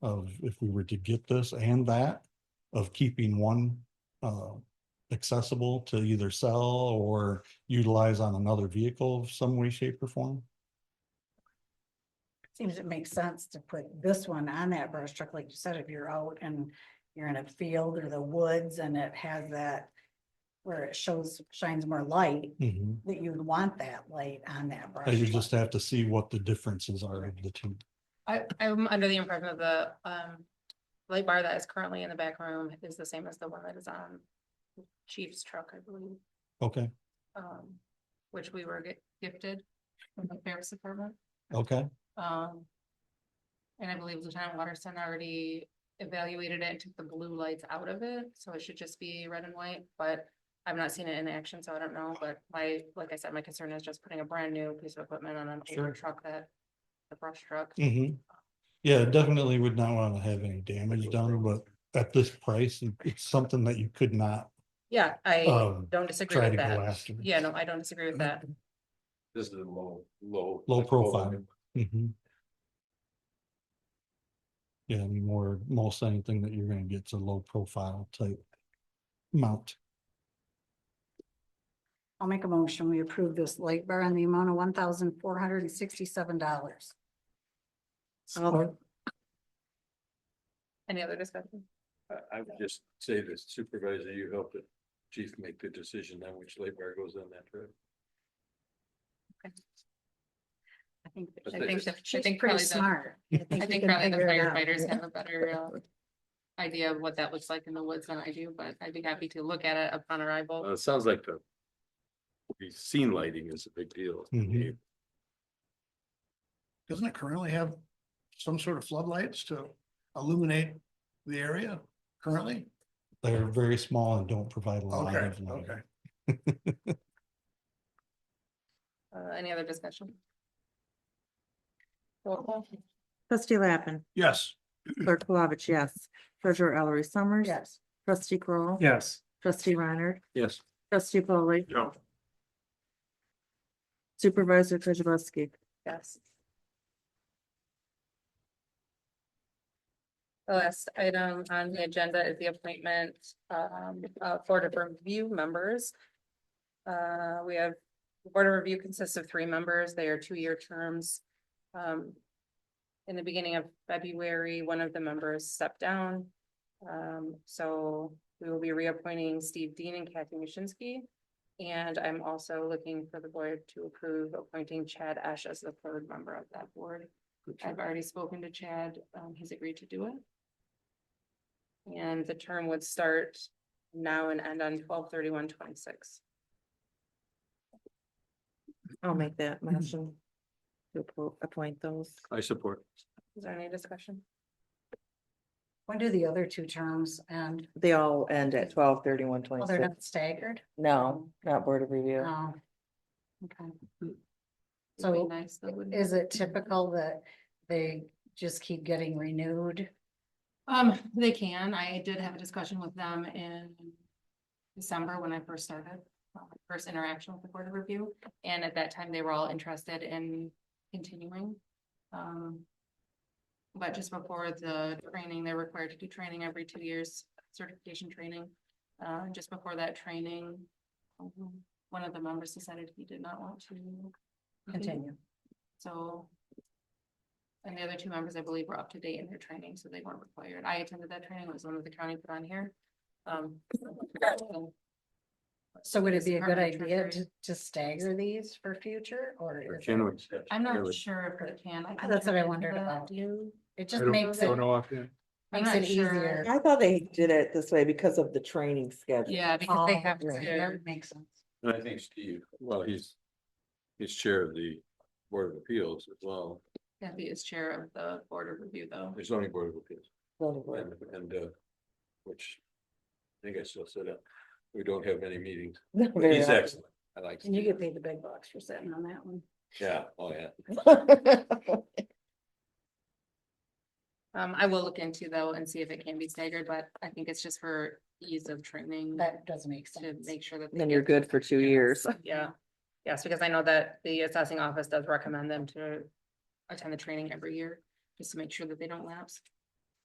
of if we were to get this and that, of keeping one uh accessible to either sell or utilize on another vehicle of some way, shape or form. Seems it makes sense to put this one on that brush truck, like you said, if you're out and you're in a field or the woods and it has that. Where it shows, shines more light, that you'd want that light on that brush. And you truck. just have to see what the differences are of the two. I, I'm under the impression that the, um, light bar that is currently in the back room is the same as the one that is on Chief's truck, I believe, Okay, um, which we were get- gifted from the Sheriff's Department, okay, um. And I believe Lieutenant Waterston already evaluated it and took the blue lights out of it, so it should just be red and white, but I've not seen it in action, so I don't know, but my, like I said, my concern is just putting a brand new piece of equipment on an Sure. older truck that, the brush truck. mhm. Yeah, definitely would not want to have any damage done, but at this price, it's something that you could not Yeah, I um don't disagree try with to go that. after. Yeah, no, I don't disagree with that. This is a low, low. Low profile. Mhm. Yeah, I mean, more, most anything that you're gonna get's a low profile type mount. I'll make a motion. We approve this light bar in the amount of one thousand four hundred and sixty-seven dollars. Support. Any other discussion? I, I would just say that supervisor, you helped the chief make the decision on which light bar goes on that truck. I think. I But think, it's- the- I She's think pretty probably the, smart. we I think can probably the figure it out. firefighters have a better uh. Idea of what that looks like in the woods than I do, but I'd be happy to look at it upon Uh, arrival. it sounds like the. The scene lighting is a big deal. Mhm. doesn't it currently have some sort of floodlights to illuminate the area currently? They're very small and don't provide a lot Mm-hmm. Okay, of light. okay. Uh, any other discussion? Roll call? Trustee Lappin, Yes. clerk Plavich, yes. Treasurer Ellery Summers. Yes, Trustee Kroll, Yes. Trustee Reiner. Yes. Trustee Polly. Yeah. Supervisor Kozibowski. Yes. The last item on the agenda is the appointment um of Board of Review members. Uh, we have, the Board of Review consists of three members. They are two-year terms. Um, in the beginning of February, one of the members stepped down. Um, so we will be reappointing Steve Dean and Kathy Mushinsky. And I'm also looking for the board to approve appointing Chad Ash as the third member of that board. I've already spoken to Chad, um, he's agreed to do it. And the term would start now and end on 1231-26. I'll make that motion. To appo- appoint those. I support. Is there any discussion? when do the other two terms end? They all end at twelve thirty-one Well, they're not staggered? No, not Board of Review. Oh. Okay, It'd be So, nice, though, wouldn't is it typical that they just keep getting renewed? Um, they can. I did have a discussion with them in December when I first started, uh, my first interaction with the Board of Review. And at that time, they were all interested in continuing. Um, but just before the training, they're required to do training every two years, certification training. Uh, just before that training, um, one of the members decided he did not want to Mm-hmm. Continue. so. And the other two members, I believe, were up to date in their training, so they weren't required. I attended that training, it was one of the county put on here. Um. So would it be a good Department of idea Treasury. to, to stagger these for future or? Or is can we? it- I'm Yeah, not we- sure if it can. can That's what I look into wondered that. about. Do you? It I just don't- makes don't it, know offhand. I'm makes not it easier. sure. I thought they did it this way because of the training schedule. Yeah, because they Oh, have right, to, that Makes sense. And I think Steve, well, he's. He's chair of the Board of Appeals as well, Kathy is chair of the board of review though. the zoning board of appeals. Zoning board. And, and, uh, which I think I still said that we don't have any meetings. Not but very He's often. excellent. I like. And you Steve. get paid the big bucks for sitting on that one. Yeah, oh, yeah. Um, I will look into though and see if it can be staggered, but I think it's just for ease of training. That does make to sense. make sure that. they Then you're get- good for two Yes, years. Yeah, yes, because I know that the assessing office does recommend them to attend the training every year, just to make sure that they don't lapse.